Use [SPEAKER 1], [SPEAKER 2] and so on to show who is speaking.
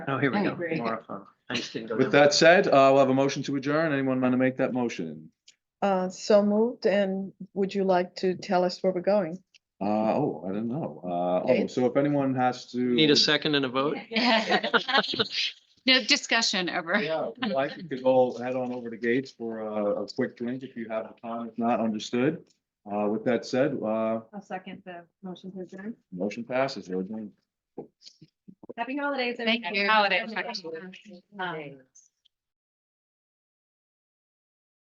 [SPEAKER 1] Oh, here we
[SPEAKER 2] I
[SPEAKER 1] go.
[SPEAKER 2] agree.
[SPEAKER 1] More fun. I just didn't go
[SPEAKER 3] With
[SPEAKER 1] down.
[SPEAKER 3] that said, uh, we'll have a motion to adjourn. Anyone want to make that motion?
[SPEAKER 4] Uh, so moved, and would you like to tell us where we're going?
[SPEAKER 3] Uh, oh, I don't know. Uh, oh,
[SPEAKER 4] Okay.
[SPEAKER 3] so if anyone has to.
[SPEAKER 1] Need a second and a vote?
[SPEAKER 2] No discussion over.
[SPEAKER 3] Yeah, well, I think we could all head on over to Gates for a, a quick drink if you have the time, if not understood. Uh, with that said, uh,
[SPEAKER 5] I'll second the motion to adjourn.
[SPEAKER 3] motion passes. We're adjourned.
[SPEAKER 5] Happy holidays.
[SPEAKER 2] Thank
[SPEAKER 5] everyone.
[SPEAKER 2] you. Holidays.
[SPEAKER 5] Um,